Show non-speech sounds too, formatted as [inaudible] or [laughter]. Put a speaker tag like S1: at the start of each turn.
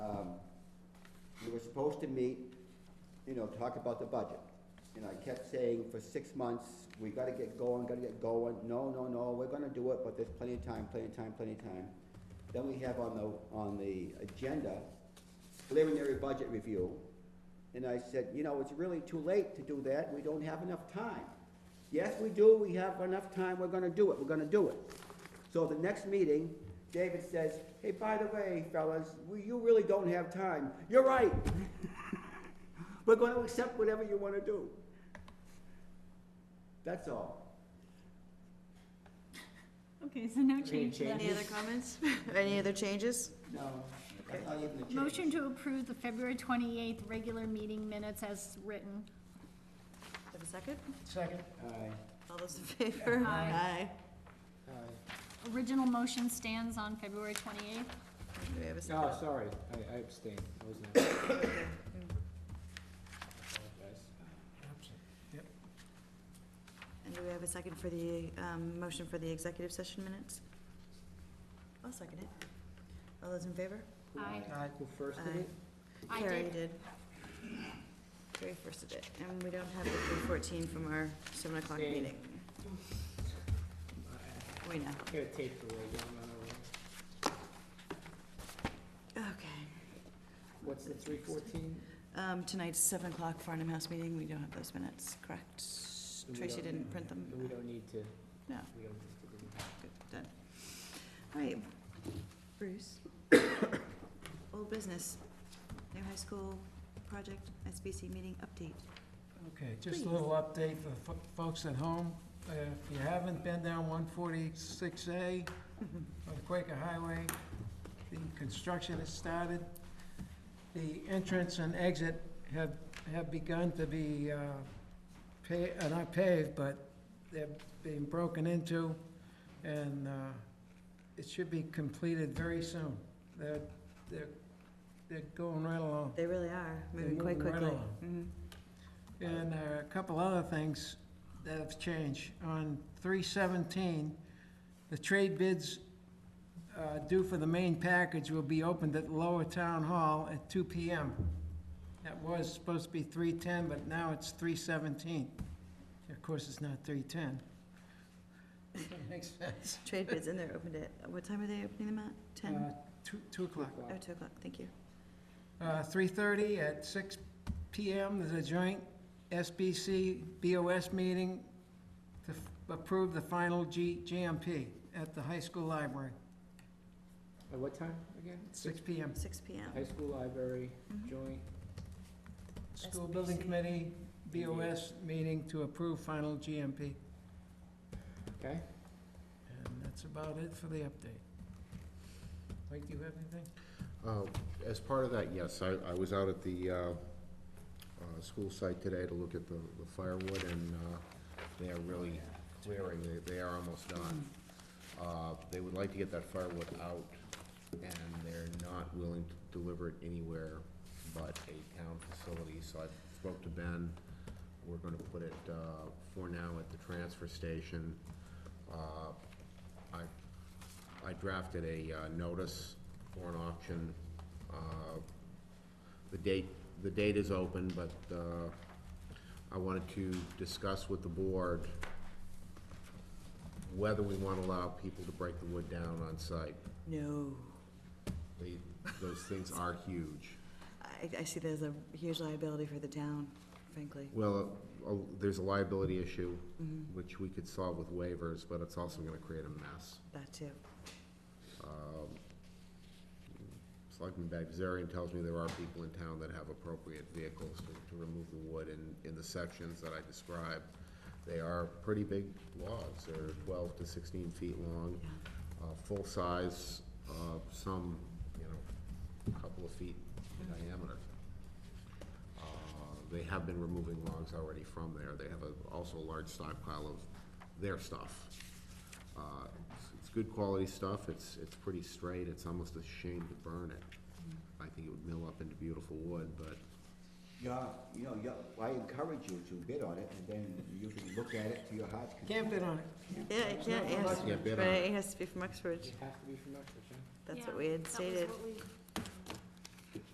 S1: Um, supposed to meet, you know, talk about the budget. And I kept saying for six months, we gotta get going, gotta get going, no, no, no, we're gonna do it, but there's plenty of time, plenty of time, plenty of time. Then we have on the, on the agenda, preliminary budget review. And I said, you know, it's really too late to do that, we don't have enough time. Yes, we do, we have enough time, we're gonna do it, we're gonna do it. So the next meeting, David says, hey, by the way, fellas, we, you really don't have time. You're right. [laughs] We're gonna accept whatever you wanna do. That's all.
S2: Okay, so no
S1: Any
S2: change to that.
S1: changes?
S3: Any other comments? [laughs] Any other changes?
S1: No, that's not even a change.
S2: Motion to approve the February twenty-eighth regular meeting minutes as written.
S3: Have a second?
S4: Second.
S1: Aye.
S3: All those in favor?
S2: Aye.
S4: Aye.
S2: Original motion stands on February twenty-eighth.
S3: Aye. Do we have a second?
S4: Oh, sorry, I I abstained, I was not. Apologize.
S3: And do we have a second for the, um, motion for the executive session minutes? I'll second it. All those in favor?
S2: Aye.
S4: Who first did
S3: Aye.
S4: it?
S2: I
S3: Carrie
S2: did.
S3: did. Carrie first did it, and we don't have the three fourteen from our seven o'clock
S4: Same.
S3: meeting.
S4: I
S3: We know.
S4: Gotta tape the way, I'm not aware.
S3: Okay.
S4: What's the three fourteen?
S3: Um, tonight's seven o'clock Farnham House meeting, we don't have those minutes, correct?
S4: We
S3: Tracy
S4: don't-
S3: didn't print them.
S4: We don't need to.
S3: No.
S4: We don't need to do that.
S3: Good, done. All right, Bruce. Old business, new high school project, SBC meeting update.
S5: Okay, just
S3: Please.
S5: a little update for fo- folks at home. Uh, If you haven't been down 146A on Quaker Highway, the construction has started. The entrance and exit have, have begun to be, uh, pa- uh, not paved, but they're being broken into, and uh, it should be completed very soon. They're, they're, they're going right along.
S3: They really are,
S5: They're
S3: moving quite
S5: moving right
S3: quickly.
S5: along.
S3: Mhm.
S5: And uh, a couple other things that have changed. On three seventeen, the trade bids uh, due for the main package will be opened at Lower Town Hall at two P M. That was supposed to be three ten, but now it's three seventeen. Of course, it's not three ten. [laughs] Makes sense.
S3: Trade bids in there opened at, what time are they opening them at? Ten?
S5: Uh, Two, two o'clock.
S3: Oh, two o'clock, thank you.
S5: Uh, 3:30 at 6 PM, there's a joint SBC BOS meeting to f- approve the final G- GMP at the high school library,
S4: At what time again?
S5: 6 PM.
S3: Six P M. mm-hmm.
S4: High school library, joint,
S5: School Building
S3: SBC.
S5: Committee BOS meeting to approve final GMP.
S4: okay?
S5: And that's about it for the update. Mike, do you have anything?
S6: Uh, As part of that, yes, I, I was out at the uh, uh, school site today to look at the the firewood, and uh, they are really clearing, They- they are almost done. Uh, They would like to get that firewood out, and they're not willing to deliver it anywhere but a town facility, so I spoke to Ben. We're gonna put it, uh, for now, at the transfer station. Uh, I I drafted a uh, notice for an auction. Uh, The date, the date is open, but uh, I wanted to discuss with the board whether we want to allow people to break the wood down on site.
S3: No,
S6: They- Those things are huge.
S3: I, I see there's a huge liability for the town, frankly.
S6: Well, uh, there's a liability issue, which we could solve with waivers, but it's also going to create a mess.
S3: That too.
S6: Selectman Bagdasarian tells me there are people in town that have appropriate vehicles to, to remove the wood in, in the sections that I described. They are pretty big logs, they're twelve to sixteen feet long, uh, full size, uh, some, you know, a couple of feet in diameter. Uh, They have been removing logs already from there, they have a, also a large stockpile of their stuff. Uh, it's- It's good quality stuff, it's, it's pretty straight, it's almost a shame to burn it. I think it would mill up into beautiful wood, but
S1: Yeah, you know, yeah, I encourage you to bid on it, and then you can look at it to your heart's content.
S5: Can't bid on it.
S3: Yeah, I can't, it has,
S6: Yeah,
S3: to-
S6: bid on
S3: right,
S6: it.
S3: it has to be from Oxford.
S4: You have to be from Oxford, huh?
S3: That's what we had stated.
S2: That was what